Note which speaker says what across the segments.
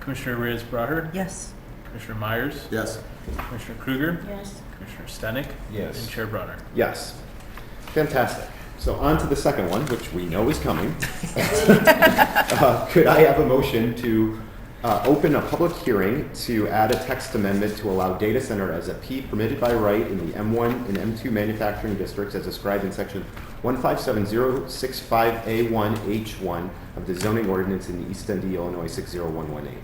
Speaker 1: Commissioner Reyes Braher,
Speaker 2: Yes.
Speaker 1: Commissioner Myers,
Speaker 3: Yes.
Speaker 1: Commissioner Kruger,
Speaker 2: Yes.
Speaker 1: Commissioner Stenick, and
Speaker 4: Yes.
Speaker 1: Chair Brunner.
Speaker 4: Yes. Fantastic. So on to the second one, which we know is coming. Uh, Could I have a motion to uh, open a public hearing to add a text amendment to allow data center as a P permitted by right in the M1 and M2 manufacturing districts as described in section 157065A1H1 of the zoning ordinance in East Dundee, Illinois 60118?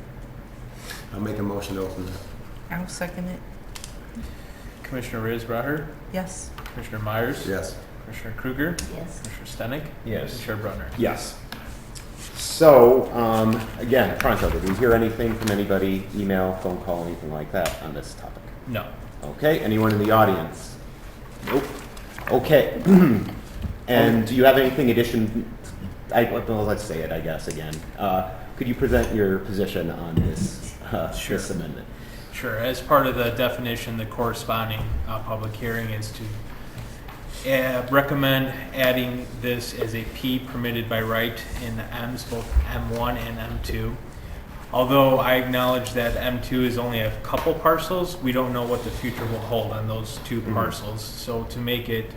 Speaker 3: I'll make a motion to open that.
Speaker 2: I'll second it.
Speaker 1: Commissioner Reyes Braher,
Speaker 2: Yes.
Speaker 1: Commissioner Myers,
Speaker 3: Yes.
Speaker 1: Commissioner Kruger,
Speaker 2: Yes.
Speaker 1: Commissioner Stenick,
Speaker 4: Yes.
Speaker 1: and Chair Brunner.
Speaker 4: Yes. So, um, again, Pronto, did we hear anything from anybody, email, phone call, anything like that on this topic?
Speaker 1: No.
Speaker 4: Okay, anyone in the audience? Nope. Okay. And do you have anything addition, I, well, let's say it, I guess, again. Uh, Could you present your position on this, uh,
Speaker 1: Sure.
Speaker 4: this amendment?
Speaker 1: Sure, as part of the definition, the corresponding uh, public hearing is to uh, recommend adding this as a P permitted by right in the Ms, both M1 and M2. Although I acknowledge that M2 is only a couple parcels, we don't know what the future will hold on those two parcels. So to make it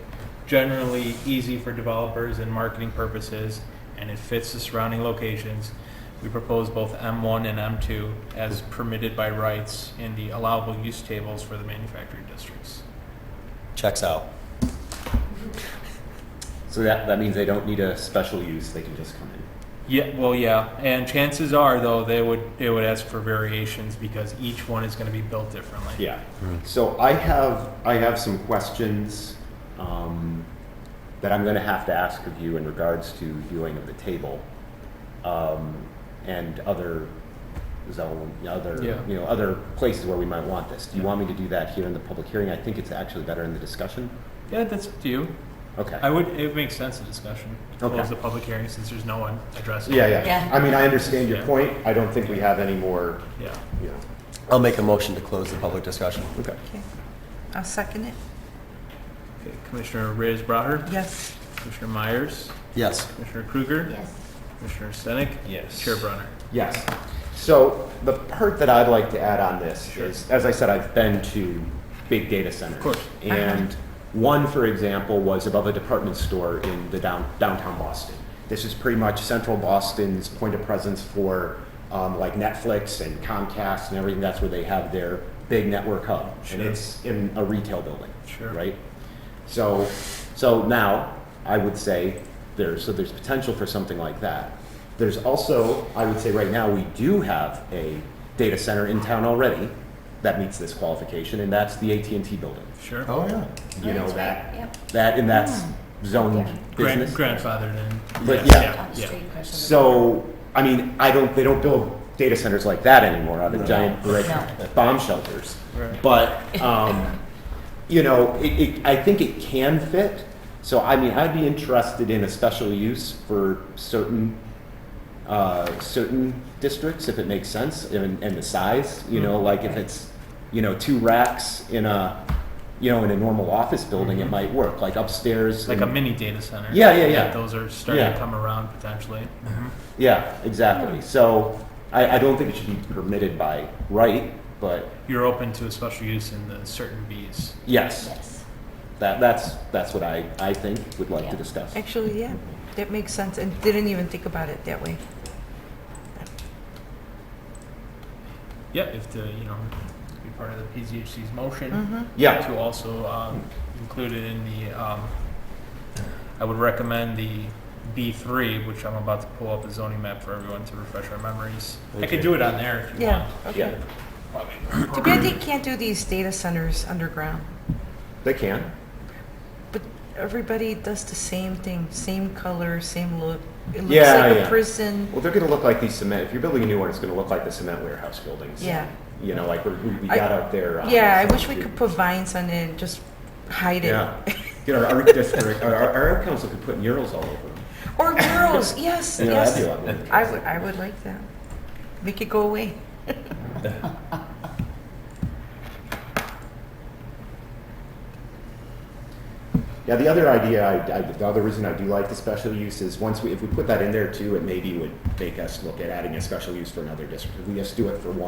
Speaker 1: generally easy for developers and marketing purposes, and it fits the surrounding locations, we propose both M1 and M2 as permitted by rights in the allowable use tables for the manufacturing districts.
Speaker 3: Checks out.
Speaker 4: So that, that means they don't need a special use, they can just come in.
Speaker 1: Yeah, well, yeah, and chances are, though, they would, they would ask for variations because each one is gonna be built differently.
Speaker 4: Yeah. So I have, I have some questions um, that I'm going to have to ask of you in regards to viewing of the table um, and other zone, other,
Speaker 1: Yeah.
Speaker 4: you know, other places where we might want this. Do you
Speaker 1: Yeah.
Speaker 4: want me to do that here in the public hearing? I think it's actually better in the discussion.
Speaker 1: Yeah, that's up to you.
Speaker 4: Okay.
Speaker 1: I would, it makes sense, a discussion, to
Speaker 4: Okay.
Speaker 1: close the public hearing since there's no one addressing.
Speaker 4: Yeah,
Speaker 1: it.
Speaker 4: yeah.
Speaker 2: Yeah.
Speaker 4: I mean, I understand your
Speaker 1: Yeah.
Speaker 4: point. I don't think we have any more,
Speaker 1: Yeah.
Speaker 4: you know.
Speaker 3: I'll make a motion to close the public discussion.
Speaker 4: Okay.
Speaker 2: Okay. I'll second it.
Speaker 1: Okay, Commissioner Reyes Braher,
Speaker 2: Yes.
Speaker 1: Commissioner Myers,
Speaker 3: Yes.
Speaker 1: Commissioner Kruger.
Speaker 2: Yes.
Speaker 1: Commissioner Stenick.
Speaker 4: Yes.
Speaker 1: Chair Brunner.
Speaker 4: Yes. So the part that I'd like to add on this
Speaker 1: Sure.
Speaker 4: is, as I said, I've been to big data centers.
Speaker 1: Of course.
Speaker 4: And one, for example, was above a department store in the down, downtown Boston. This is pretty much central Boston's point of presence for um, like Netflix and Comcast and everything. That's where they have their big network hub.
Speaker 1: Sure.
Speaker 4: And it's in a retail building.
Speaker 1: Sure.
Speaker 4: Right? So, so now, I would say, there's, so there's potential for something like that. There's also, I would say right now, we do have a data center in town already that meets this qualification, and that's the at and T building.
Speaker 1: Sure.
Speaker 3: Oh, yeah.
Speaker 4: You know,
Speaker 5: that's right,
Speaker 4: that,
Speaker 5: yep. Hmm.
Speaker 4: that, and that's zoned
Speaker 1: Grand-
Speaker 4: business.
Speaker 1: Grandfathered in.
Speaker 4: But
Speaker 1: Yes,
Speaker 4: yeah.
Speaker 5: Down the street across the-
Speaker 4: So, I mean, I don't, they don't build data centers like that anymore out of giant brick
Speaker 2: No.
Speaker 4: bomb shelters.
Speaker 1: Right.
Speaker 4: But, um, you know, it, it, I think it can fit. So, I mean, I'd be interested in a special use for certain, uh, certain districts if it makes sense and, and the size, you know, like if it's, you know, two racks in a, you know, in a normal office building, it might work, like upstairs.
Speaker 1: Like a
Speaker 4: and-
Speaker 1: mini data center.
Speaker 4: Yeah, yeah, yeah.
Speaker 1: Those are starting
Speaker 4: Yeah.
Speaker 1: to come around potentially.
Speaker 4: Yeah,
Speaker 2: Hmm.
Speaker 4: exactly. So I, I don't think it should be permitted by right, but
Speaker 1: You're open to a special use in the certain Bs.
Speaker 4: yes,
Speaker 5: Yes.
Speaker 4: that, that's, that's what I, I think would like to
Speaker 5: Yeah.
Speaker 4: discuss.
Speaker 2: Actually, yeah, that makes sense. And didn't even think about it that way.
Speaker 1: Yeah, if the, you know, be part of the PZHC's motion
Speaker 2: Mm-hmm.
Speaker 4: Yeah,
Speaker 1: to also um, include it in the, um, I would recommend the B3, which I'm about to pull up a zoning map for everyone to refresh our memories. I could do it on there if you
Speaker 2: Yeah.
Speaker 1: want.
Speaker 2: Okay.
Speaker 4: yeah,
Speaker 2: Too bad they can't do these data centers underground.
Speaker 4: they can.
Speaker 2: But everybody does the same thing, same color, same look. It looks
Speaker 4: Yeah,
Speaker 2: like
Speaker 4: yeah.
Speaker 2: a prison.
Speaker 4: Well, they're gonna look like these cement, if you're building a new one, it's gonna look like the cement warehouse buildings.
Speaker 2: Yeah.
Speaker 4: You know, like we, we
Speaker 2: I-
Speaker 4: got out there. uh,
Speaker 2: Yeah, I wish we could put vines on it and just hide it.
Speaker 4: Yeah. You know, our, district- our, our, our council could put murals all over them.
Speaker 2: Or girls, yes,
Speaker 4: You know,
Speaker 2: yes.
Speaker 4: that'd be a lot more
Speaker 2: I
Speaker 4: interesting.
Speaker 2: would, I would like that. Make it go away.
Speaker 4: Now, the other idea, I, I, the other reason I do like the special use is once we, if we put that in there too, it maybe would make us look at adding a special use for another district. If we just do it for one.